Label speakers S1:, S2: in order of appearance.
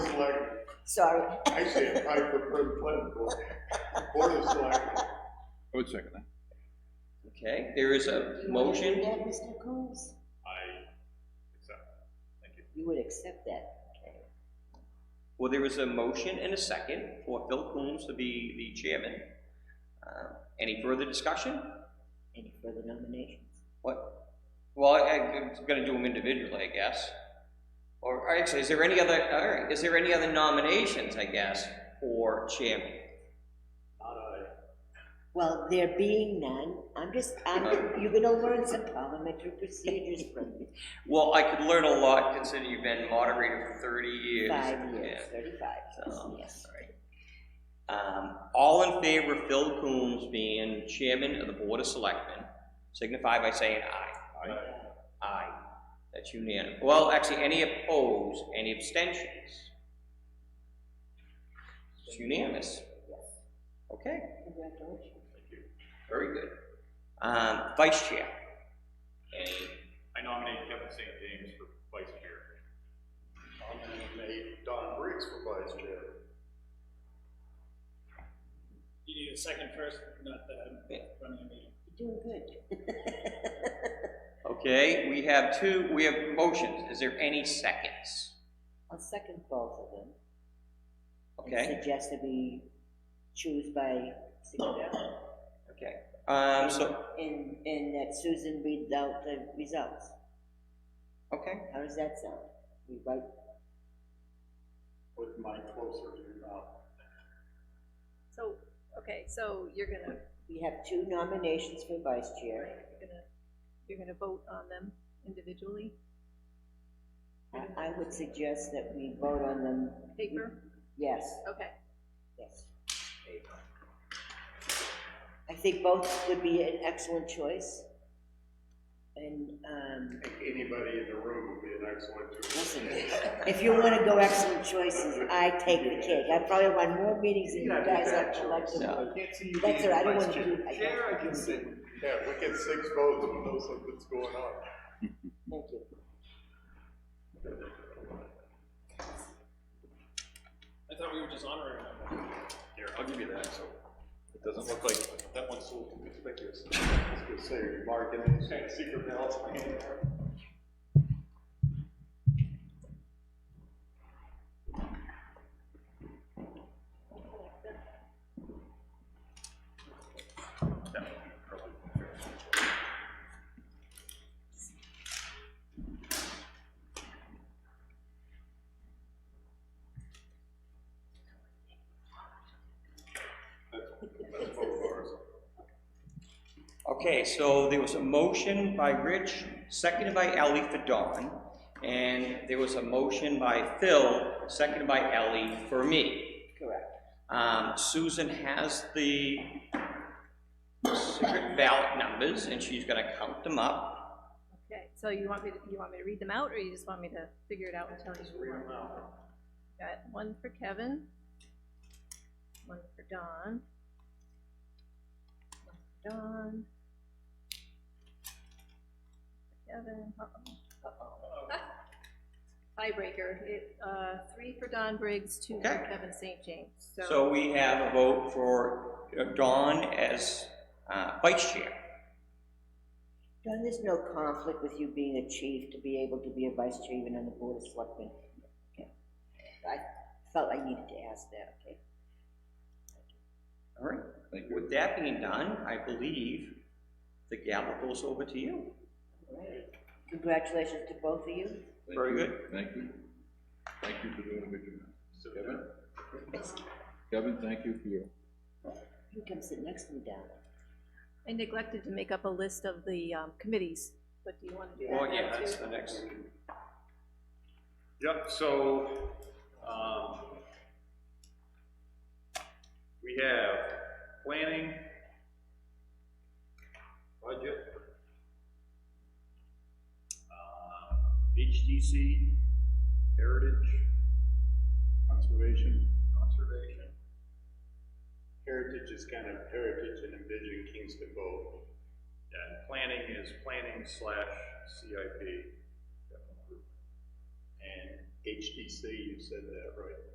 S1: selectmen.
S2: sorry.
S1: I say apply for per- planning board, board of selectmen.
S3: I would second that.
S4: Okay, there is a motion.
S2: Yeah, Mr. Coons,
S1: I accept.
S2: you would accept that, okay.
S4: Well, there is a motion and a second for Phil Coombs to be the chairman. Uh, Any further discussion?
S2: Any further nominations?
S4: What? Well, I, I'm gonna do them individually, I guess. Or, all right, so is there any other, all right, is there any other nominations, I guess, for chairman?
S1: Not I.
S2: Well, there being none, I'm just, I'm, you're gonna learn some parliamentary procedures from this.
S4: Well, I could learn a lot considering you've been moderator for thirty years.
S2: Five years,
S4: Yeah. Oh,
S2: thirty-five,
S4: So,
S2: yes.
S4: Um, all in favor of Phil Coombs being chairman of the Board of Selectmen, signify by saying aye.
S3: Aye.
S4: Aye. That's unanimous. Well, actually, any opposed, any abstentions? It's unanimous. Okay,
S2: Congratulations.
S4: very good. Um, vice chair. Any
S5: I nominate Kevin St. James for vice chair.
S1: I'm gonna nominate Don Briggs for vice chair.
S6: You need a second first, not that I'm running a meeting.
S2: You're doing good.
S4: Okay, we have two, we have motions, is there any seconds?
S2: I'll second both of them. and
S4: Okay,
S2: Suggest that we choose by signature,
S4: okay, um, so,
S2: and, and that Susan reads out the results.
S4: okay,
S2: How does that sound? We write,
S1: With my closer to you now.
S7: So, okay, so you're gonna,
S2: we have two nominations for vice chair.
S7: you're gonna, you're gonna vote on them individually,
S2: I- I would suggest that we vote on them,
S7: paper?
S2: yes,
S7: Okay,
S2: yes. I think both would be an excellent choice. And, um,
S1: I think anybody in the room would be an excellent choice.
S2: listen, if you wanna go excellent choices, I take the cake. I probably run more meetings than you guys have collectively.
S5: Can't see you
S2: That's all right, I don't wanna do- I-
S5: Chair, I can sit.
S1: Yeah, we get six votes, we know something's going on.
S2: Thank you.
S6: I thought we were just honoring them.
S5: Here, I'll give you that, so it doesn't look like, that one's a little too conspicuous.
S1: I was gonna say, Mark, any kind of secret balance in my hand there? That's both ours.
S4: okay, so there was a motion by Rich, seconded by Ellie for Dawn, and there was a motion by Phil, seconded by Ellie for me.
S2: Correct.
S4: Um, Susan has the secret ballot numbers, and she's gonna count them up.
S7: okay, so you want me to, you want me to read them out, or you just want me to figure it out and tell you? Read them out. Got one for Kevin, one for Don, one for Don. Kevin, uh-oh. Tiebreaker, it, uh, three for Don Briggs, two for
S4: Okay.
S7: Kevin St. James,
S4: So we have a vote for Dawn as, uh, vice chair.
S2: John, there's no conflict with you being a chief to be able to be a vice chair even on the board of selectmen. Okay. I felt I needed to ask that, okay?
S4: All right, with that being done, I believe the gavel goes over to you.
S2: All right. Congratulations to both of you.
S3: Thank
S4: Very
S3: you.
S4: good.
S3: Thank you. Thank you for doing a good job. Kevin? Kevin, thank you for your,
S2: You can sit next to me down.
S7: I neglected to make up a list of the um, committees, but do you want to do that?
S4: Well, yeah,
S7: now,
S4: that's
S7: too?
S4: the next.
S5: Yep, so, um, we have planning, budget, um, HDC, heritage,
S1: Conservation,
S5: conservation,
S1: heritage is kind of heritage and envision Kingston both.
S5: and planning is planning slash CIP. capital improvement.
S1: And HDC, you said that, right?